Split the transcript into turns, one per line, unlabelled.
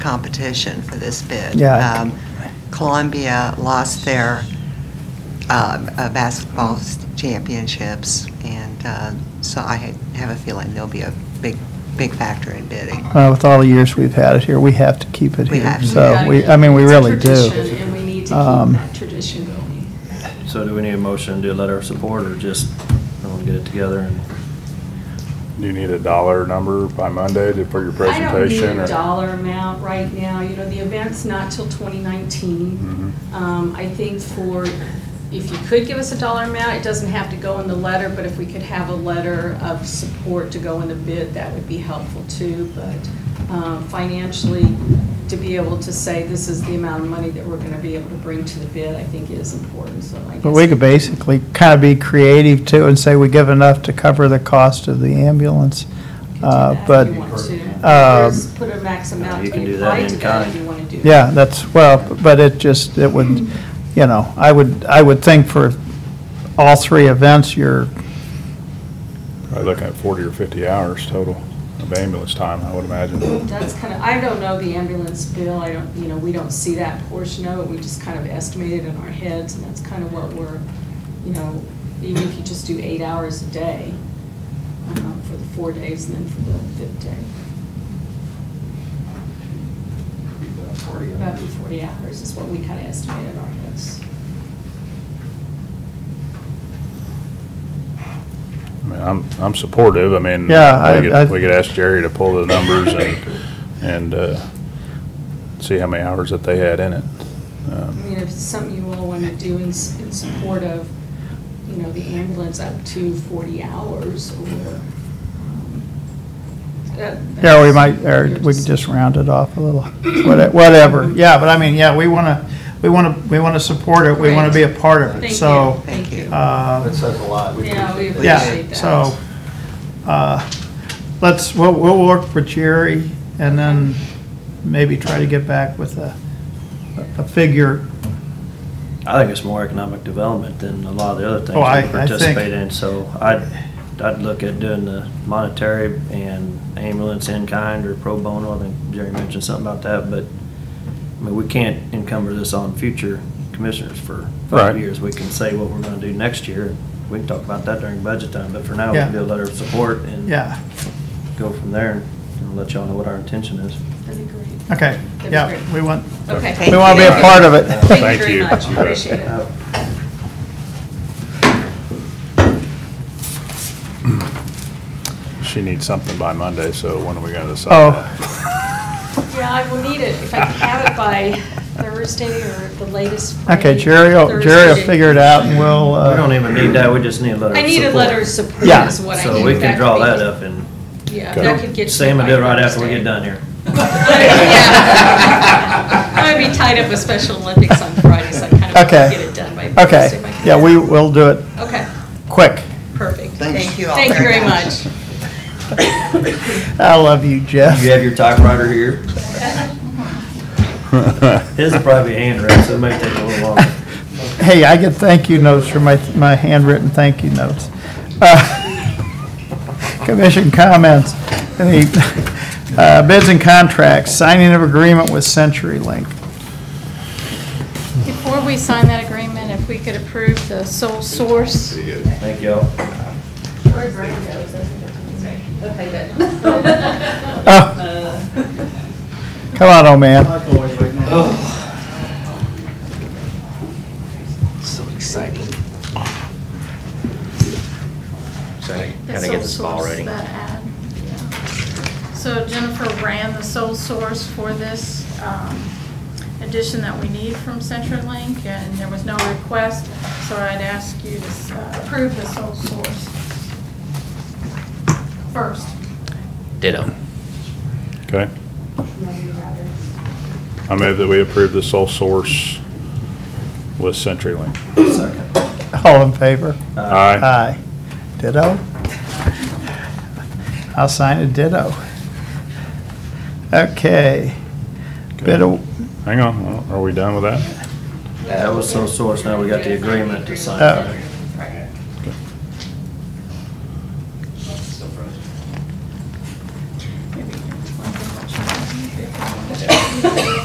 competition for this bid.
Yeah.
Um, Columbia lost their um, uh, basketball s- championships, and uh, so I ha- have a feeling there'll be a big, big factor in bidding.
Uh, With all the years we've had it here, we have to keep it
We
here.
have to.
So, we, I mean, we
It's a
really do.
tradition, and we need to
Um,
keep that tradition going.
So do we need a motion to let our support, or just, everyone get it together and?
Do you need a dollar number by Monday to- for your
I
presentation?
don't need
or-
a dollar amount right now, you know, the event's not till
Mm-hmm.
2019. Um, I think for, if you could give us a dollar amount, it doesn't have to go in the letter, but if we could have a letter of support to go in the bid, that would be helpful too. But um, financially, to be able to say this is the amount of money that we're going to be able to bring to the bid, I think is important, so I guess.
But we could basically kind of be creative too and say we give enough to cover the cost of the ambulance.
could do
Uh,
that if
But,
you want to.
um,
Just Put a max amount
You
to
can do
apply
that
to
in
that if
kind.
you want to do.
yeah, that's, well, but it just, it would, you know, I would, I would think for all three events, you're,
Probably looking at 40 or 50 hours total of ambulance time, I would imagine.
That's kind of, I don't know the ambulance bill, I don't, you know, we don't see that portion of it, we just kind of estimate it in our heads, and that's kind of what we're, you know, even if you just do eight hours a day um, for the four days and then for the fifth day. About 40 hours is what we kind of estimate in our heads.
I mean, I'm, I'm supportive, I mean.
Yeah, I-
we could-
I-
We could ask Jerry to pull the numbers and, and uh, see how many hours that they had in it.
I
Um,
mean, if it's something you all want to do in, s- in support of, you know, the ambulance up to 40 hours or. um, that-
yeah, we
that's
might, or
your
we could
decision.
just round it off a little, What- whatever. Yeah, but I mean, yeah, we want to, we want to, we want to support it, we want to be a part of it,
Thank
so.
you, Thank you.
uh,
That says a lot. We
Yeah, we
appreciate that.
Yeah,
appreciate that.
so, uh, let's, we'll, we'll work with Jerry and then maybe try to get back with a, a figure.
I think it's more economic development than a lot of the other things
Oh, I- I
we
think-
participate in, so I'd, I'd look at doing the monetary and ambulance in kind or pro bono, I think Jerry mentioned something about that, but, I mean, we can't encumber this on future commissioners for
Right.
five years. We can say what we're gonna do next year, we can talk about that during budget time, but for now, we can
Yeah.
do a letter of support and
Yeah,
go from there and let y'all know what our intention is.
That'd be great.
okay,
That'd be
yeah,
great.
we want,
Okay.
we want to be a part of it.
Thank
Thank
you very
you.
much,
You bet.
appreciate it.
She needs something by Monday, so when are we gonna decide?
Oh.
that?
Yeah, I will need it, if I can have it by Thursday or the latest.
Okay,
Friday,
Jerry, will- Jerry will
Thursday.
figure it out and we'll,
We don't
uh,
even need that, we just need a letter of
I
support.
need a letter of support
Yeah.
is what I
So
need.
we can
could
draw
be-
that up and
Yeah,
Okay.
that could get. to
Sam will
by
do it right after we
Thursday.
get done here.
Yeah. I'm gonna be tied up with Special Olympics on Friday, so I kind of want
Okay.
to get it done by Thursday.
okay,
if I can.
yeah, we will do it
Okay,
quick.
perfect.
Thank you all
Thank you
very
very much.
I love you, Jeff.
You have your typewriter here? His is probably handwritten, so it may take a little longer.
Hey, I get thank you notes for my, my handwritten thank you notes. Uh, Commission comments, Any, uh, bids and contracts, signing of agreement with CenturyLink.
Before we sign that agreement, if we could approve the sole source.
Thank y'all.
Oh. Come on, old man.
So exciting. So I
the
gotta get this
sole
ball
source
ready.
that ad, yeah. So Jennifer ran the sole source for this um, addition that we need from CenturyLink, and there was no request, so I'd ask you to uh, approve the sole source first.
Ditto.
Okay. I move that we approve the sole source with CenturyLink.
All in favor?
Uh,
Aye.
Aye. Ditto? I'll sign a ditto. Okay. Bid, aw-
Hang on, are we done with that?
That was so source, now we got the agreement to sign.
oh,
Uh,